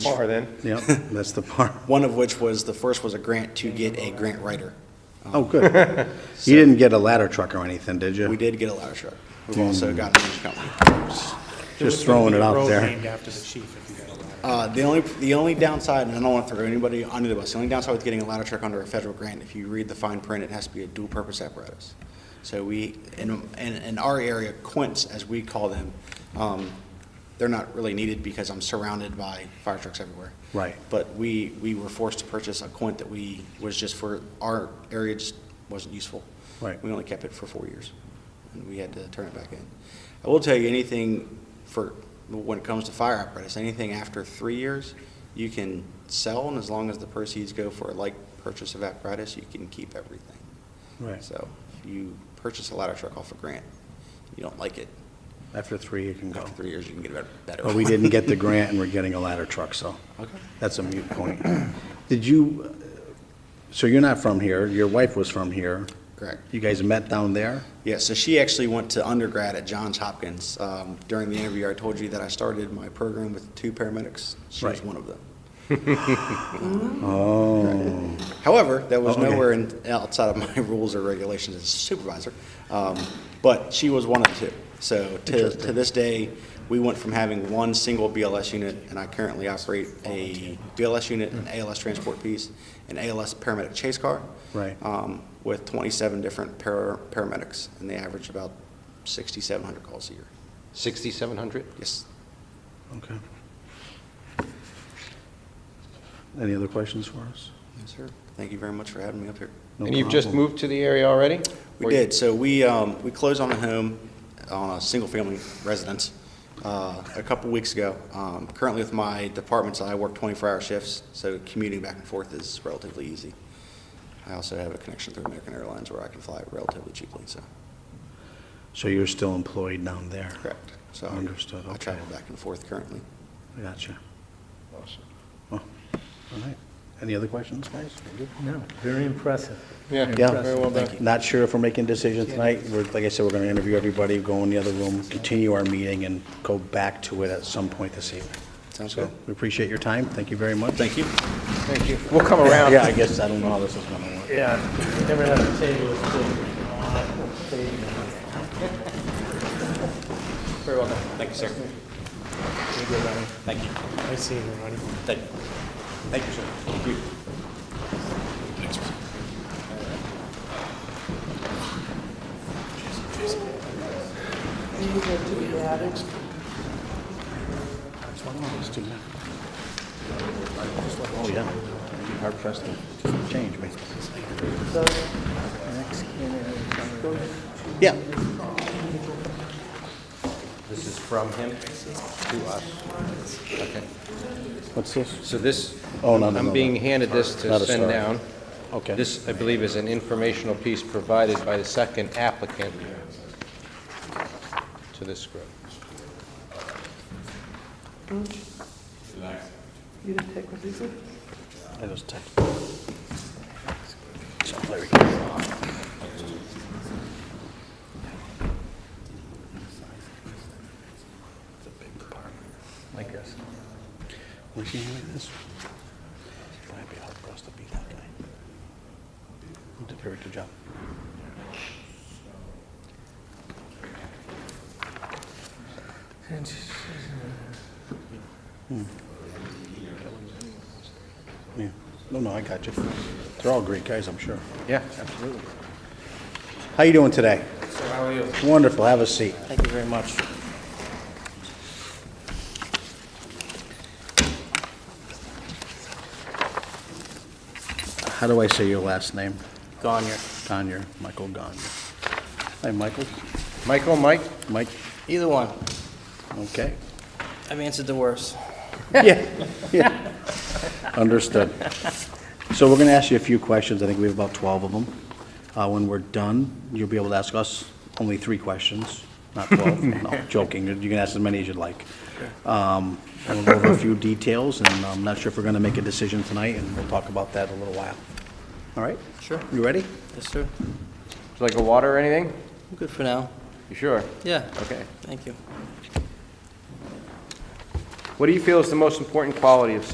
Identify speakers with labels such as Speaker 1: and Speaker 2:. Speaker 1: par then.
Speaker 2: Yep, that's the part.
Speaker 3: One of which was, the first was a grant to get a grant writer.
Speaker 2: Oh, good. You didn't get a ladder truck or anything, did you?
Speaker 3: We did get a ladder truck. We've also gotten a new company.
Speaker 2: Just throwing it out
Speaker 4: Road
Speaker 2: there.
Speaker 4: named after the chief, if you got a ladder.
Speaker 3: Uh, The only, the only downside, and I don't want to throw anybody under the bus, the only downside with getting a ladder truck under a federal grant, if you read the fine print, it has to be a dual-purpose apparatus. So we, in, in in our area, quints, as we call them, um, they're not really needed because I'm surrounded by fire trucks everywhere.
Speaker 2: Right.
Speaker 3: But we, we were forced to purchase a quint that we, was just for, our area just wasn't useful.
Speaker 2: Right.
Speaker 3: We only kept it for four years, and we had to turn it back in. I will tell you, anything for, when it comes to fire apparatus, anything after three years, you can sell, and as long as the proceeds go for a like purchase of apparatus, you can keep everything.
Speaker 2: Right.
Speaker 3: So if you purchase a ladder truck off a grant, you don't like it,
Speaker 2: After three, you can go.
Speaker 3: after three years, you can get a better- better.
Speaker 2: But we didn't get the grant, and we're getting a ladder truck, so
Speaker 3: Okay.
Speaker 2: that's a mute point. Did you, uh, so you're not from here, your wife was from here.
Speaker 3: Correct.
Speaker 2: You guys met down there?
Speaker 3: Yeah, so she actually went to undergrad at Johns Hopkins. Um, During the interview, I told you that I started my program with two paramedics. She was
Speaker 2: Right.
Speaker 3: one of them.
Speaker 2: Oh,
Speaker 3: However, that was
Speaker 2: Oh, okay.
Speaker 3: nowhere in, outside of my rules or regulations as a supervisor. Um, but she was one of the two. So to, to this day, we went from having one single BLS unit, and I currently operate a BLS unit, an ALS transport piece, an ALS paramedic chase car.
Speaker 2: Right.
Speaker 3: Um, with twenty-seven different para, paramedics, and they average about sixty-seven hundred calls a year.
Speaker 1: 6,700?
Speaker 3: Yes,
Speaker 2: okay. Any other questions for us?
Speaker 3: yes, sir. Thank you very much for having me up here.
Speaker 2: No
Speaker 1: And you've just
Speaker 2: problem.
Speaker 1: moved to the area already?
Speaker 3: We
Speaker 1: Or-
Speaker 3: did, so we, um, we closed on a home, on a single-family residence, uh, a couple weeks ago. Um, currently with my departments, I work twenty-four hour shifts, so commuting back and forth is relatively easy. I also have a connection through American Airlines where I can fly relatively cheaply, so,
Speaker 2: So you're still employed down there?
Speaker 3: correct. So I-
Speaker 2: Understood,
Speaker 3: I
Speaker 2: okay.
Speaker 3: travel back and forth currently.
Speaker 2: Gotcha. Awesome. All right. Any other questions, guys?
Speaker 5: No, very impressive.
Speaker 1: Yeah,
Speaker 2: Yeah.
Speaker 1: very well done.
Speaker 2: Not sure if we're making decisions tonight. We're, like I said, we're going to interview everybody, go in the other room, continue our meeting, and go back to it at some point this evening.
Speaker 3: Sounds
Speaker 2: So
Speaker 3: good.
Speaker 2: We appreciate your time. Thank you very much.
Speaker 3: Thank you.
Speaker 1: Thank you. We'll come around.
Speaker 2: Yeah, I guess I don't know how this is going to work.
Speaker 5: Yeah, never had a table as full. Very well done. Thank you, sir.
Speaker 4: I see you, Ronnie.
Speaker 2: Oh, yeah. You'd be Hard pressed to change, me. Yeah.
Speaker 1: This is from him to us. Okay.
Speaker 2: What's this?
Speaker 1: So this,
Speaker 2: Oh, no, no, no,
Speaker 1: I'm
Speaker 2: no.
Speaker 1: being handed this to
Speaker 2: Not a
Speaker 1: send
Speaker 2: star.
Speaker 1: down.
Speaker 2: Okay.
Speaker 1: This, I believe, is an informational piece provided by the second applicant to this group.
Speaker 6: You didn't take what these are?
Speaker 2: I just text. So, there we go. Like this. Was he like this? Might be hard for us to beat that guy. He Did a very good job. Yeah. No, no, I got you. They're all great guys, I'm sure.
Speaker 1: Yeah, absolutely.
Speaker 2: How you doing today? how are you? Wonderful. Have a seat.
Speaker 5: Thank you very much.
Speaker 2: How do I say your last name?
Speaker 5: Gone.
Speaker 2: Gonyer, Michael Gonyer. Hi, Michael.
Speaker 1: Michael, Mike?
Speaker 2: Mike,
Speaker 5: Either one.
Speaker 2: okay.
Speaker 5: I've answered the worst.
Speaker 2: Yeah, yeah. Understood. So we're going to ask you a few questions. I think we have about 12 of them. Uh, When we're done, you'll be able to ask us only three questions, not 12. No, joking. You can ask as many as you'd like. Um, and We'll go over a few details, and I'm not sure if we're going to make a decision tonight, and we'll talk about that in a little while. All right?
Speaker 5: Sure.
Speaker 2: You ready?
Speaker 5: Yes, sir.
Speaker 1: Would you Like a water or anything?
Speaker 5: I'm good for now.
Speaker 1: You sure?
Speaker 5: Yeah.
Speaker 1: Okay.
Speaker 5: Thank you.
Speaker 1: What do you feel is the most important quality of